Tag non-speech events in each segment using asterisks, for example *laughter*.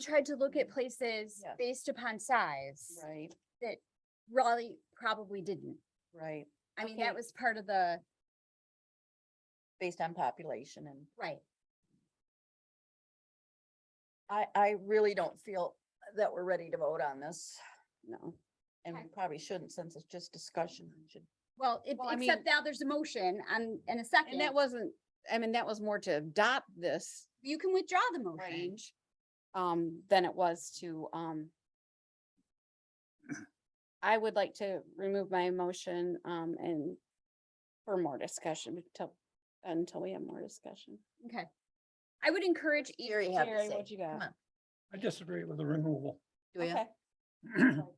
tried to look at places Yes. based upon size. Right, Raleigh probably didn't. right, I mean, that Okay. was part of the, based on population and right, I, I really don't feel that we're ready to vote on this. no. And Okay. we probably shouldn't since it's just discussion. Mm-hmm. we should- Well, if- Well, I except mean- now there's a motion and, and a second. And that wasn't, I mean, that was more to adopt this You can withdraw the motion. change um, than it was to, um, I would like to remove my motion, um, and for more discussion until, until we have more discussion. Okay. I would encourage e each Jerry had to Jerry, say. what you got? Come on, I disagree with the removal. *clears throat* do ya? Okay. *clears throat*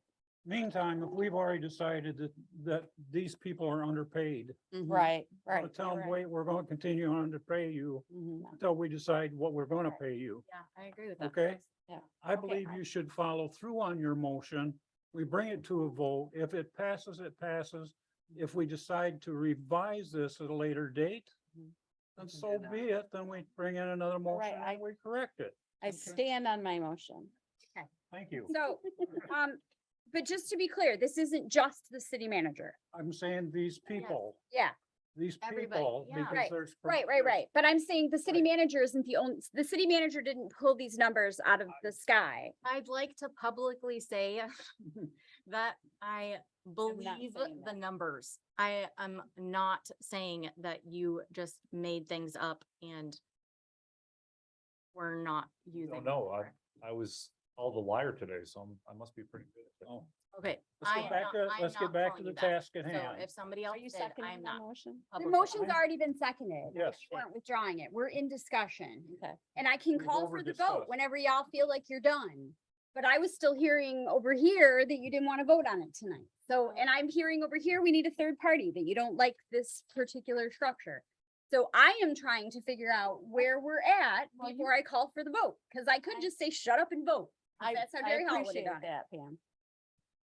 Meantime, if we've already decided that, that these people are underpaid, Mhm. Right, right. I'll tell you're them, right. wait, we're gonna continue on to pay you Mhm. until we decide what we're gonna pay you. I agree with that. Okay. Yeah. I Okay. believe you should follow through on your motion. We bring it to a vote. If it passes, it passes. If we decide to revise this at a later date, Mhm. then so be it, then we bring in another motion I- and we correct it. I Okay. stand on my motion. Thank you. So, um, but just to be clear, this isn't just the city manager. I'm saying these people, Yeah, these Everybody, people, yeah. because Right, there's. right, right, right. But I'm saying the city manager isn't the only, the city manager didn't pull these numbers out of the sky. I'd like to publicly say *laughs* that I believe saying the that. numbers. I am not saying that you just made things up and we're not using. them know, I- correct. I was all the liar today, so I'm, I must be pretty good at that. Oh, Okay. Let's I get am back not- to, I am let's not get back to calling the you that. task at So hand. if somebody Are else you did, I'm seconding the not. Oh, motion? The publicly- motion's already been seconded. We Yes. Weren't withdrawing it. We're in discussion. Okay. And I can We've call for the vote overdiscussed. whenever y'all feel like you're done. But I was still hearing over here that you didn't want to vote on it tonight. So, and I'm hearing over here, we need a third party, that you don't like this particular structure. So I am trying to figure out where we're at Well, you- before I call for the vote, because I could I- just say, shut up and vote. I, That's how I Jerry Hall would've appreciate done it. that, Pam.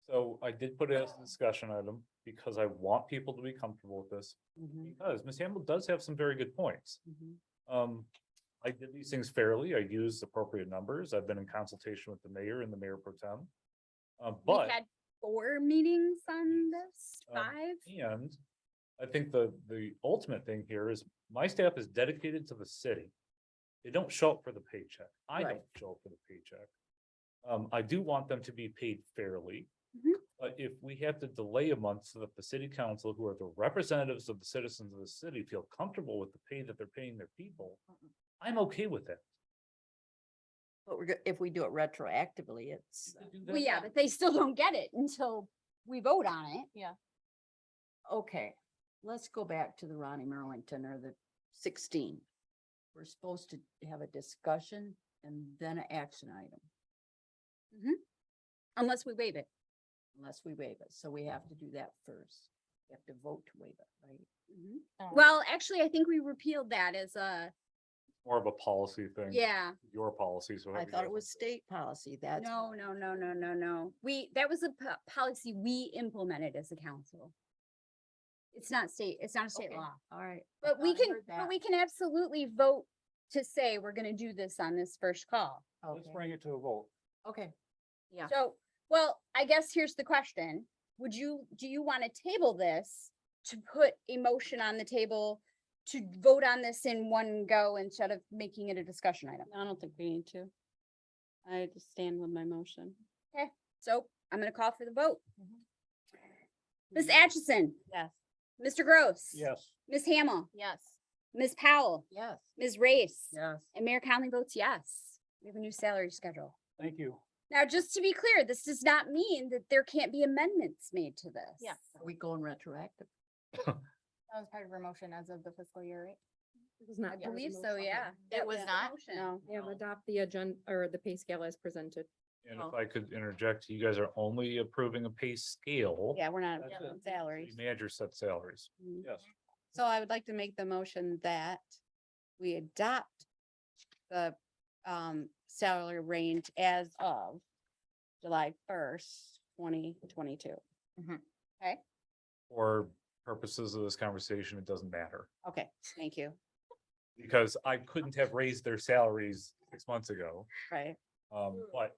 So I did put it as a discussion item because I want people to be comfortable with this, Mhm, because Ms. Hamble does have some very good points. mhm. Um, I did these things fairly, I used appropriate numbers, I've been in consultation with the mayor and the mayor pro tem. Uh, We but, had four meetings on this, Um, five. and I think the, the ultimate thing here is my staff is dedicated to the city. They don't show up for the paycheck, I Right. don't show up for the paycheck. Um, I do want them to be paid fairly. Mm-hmm. Mhm. But if we have to delay a month so that the city council, who are the representatives of the citizens of the city, feel comfortable with the pay that they're paying their people, I'm okay with that. But we're, go- if we do it retroactively, it's, To do Well, that- yeah, but they still don't get it until we vote on it. uh, okay, let's go back to the Ronnie Merlington or the sixteen. We're supposed to have a discussion and then an action item Unless we waive it. unless we waive it. So we have to do that first. We have to vote to waive it, right? Oh. Well, actually, I think we repealed that as a, More of a policy thing. yeah, Your policy, so. I however you thought guys it was want to- state policy. That's. no, no, no, no, no, no. We, that was a po- policy we implemented as a council. It's not state, it's not a state Okay. law, All right. I but we thought I can, heard but that. we can absolutely vote to say we're gonna do this on this first call. Let's Okay. bring it to a vote. Okay, Yeah. So, well, I guess here's the question. Would you, do you want to table this to put a motion on the table to vote on this in one go instead of making it a discussion item? I don't think we need to. I just stand with my motion. So I'm gonna call for the vote. Ms. Mhm. Atchison, Yes. Mr. Gross. Yes, Ms. Hamel, Yes. Ms. Powell, yes. Ms. Race. Yes. And Mayor Conley votes yes. We have a new salary schedule. thank you. Now, just to be clear, this does not mean that there can't be amendments made to this. Yeah. Are we going retroactive? That was part of her motion as of the fiscal year, right? I believe so, yeah. That was the not? motion. No. Yeah, No. adopt the agenda or the pay scale as presented. And if Oh. I could interject, you guys are only approving a pay scale. Yeah, we're not That's on it. The salaries. Manager set salaries. Mm. Yes. So I would like to make the motion that we adopt the um salary range as of July first, twenty twenty-two. For purposes of this conversation, it doesn't matter. Okay, thank you. Because I couldn't have raised their salaries six months ago. Right. Um, but